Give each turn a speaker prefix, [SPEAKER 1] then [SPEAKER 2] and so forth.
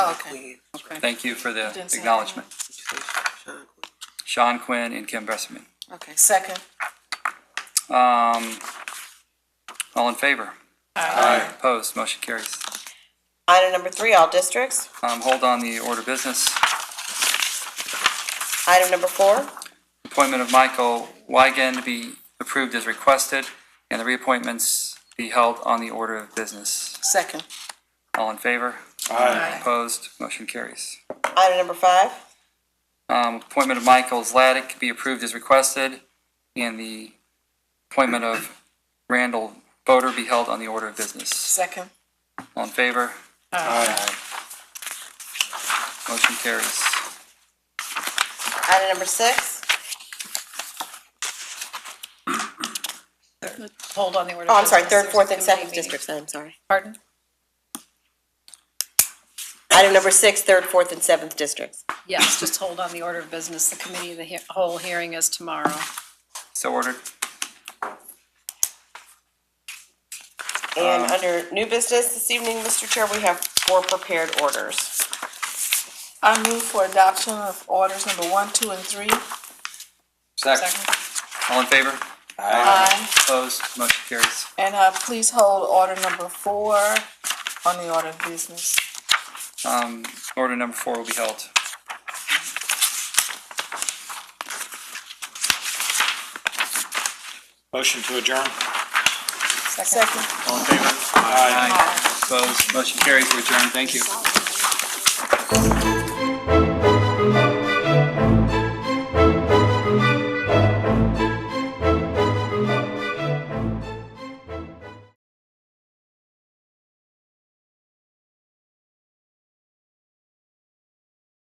[SPEAKER 1] Okay. Okay,
[SPEAKER 2] Thank you for the
[SPEAKER 1] Didn't say
[SPEAKER 2] acknowledgement. Sean Quinn and Kim Besserman.
[SPEAKER 1] okay, second.
[SPEAKER 2] Um, all in favor? Aye. Opposed, motion carries.
[SPEAKER 3] Item number three, all districts.
[SPEAKER 2] Um, hold on the order of business.
[SPEAKER 3] Item number four,
[SPEAKER 2] Appointment of Michael Wygan to be approved as requested, and the reappointments be held on the order of business.
[SPEAKER 1] Second.
[SPEAKER 2] All in favor?
[SPEAKER 1] Aye.
[SPEAKER 2] Opposed, motion carries.
[SPEAKER 3] item number five,
[SPEAKER 2] Um, appointment of Michael Zlatic be approved as requested, and the appointment of Randall Boder be held on the order of business.
[SPEAKER 1] Second.
[SPEAKER 2] All in favor? Aye. Motion carries.
[SPEAKER 3] item number six.
[SPEAKER 1] Hold on the order.
[SPEAKER 3] Oh, I'm sorry, third, fourth, and seventh districts, I'm sorry.
[SPEAKER 1] Pardon?
[SPEAKER 3] Item number six, third, fourth, and seventh districts.
[SPEAKER 4] Yes, just hold on the order of business. The committee of the he- whole hearing is tomorrow.
[SPEAKER 2] So ordered.
[SPEAKER 1] Uh.
[SPEAKER 3] And under new business this evening, Mr. Chair, we have four prepared orders.
[SPEAKER 1] I move for adoption of orders number one, two, and three.
[SPEAKER 2] Second. All in favor?
[SPEAKER 1] Aye.
[SPEAKER 2] Opposed? Motion carries.
[SPEAKER 1] And, uh, please hold order number four on the order of business.
[SPEAKER 2] Um, order number four will be held.
[SPEAKER 5] Motion to adjourn.
[SPEAKER 1] Second.
[SPEAKER 2] All in favor? Aye. Opposed? Motion carries. We adjourn. Thank you.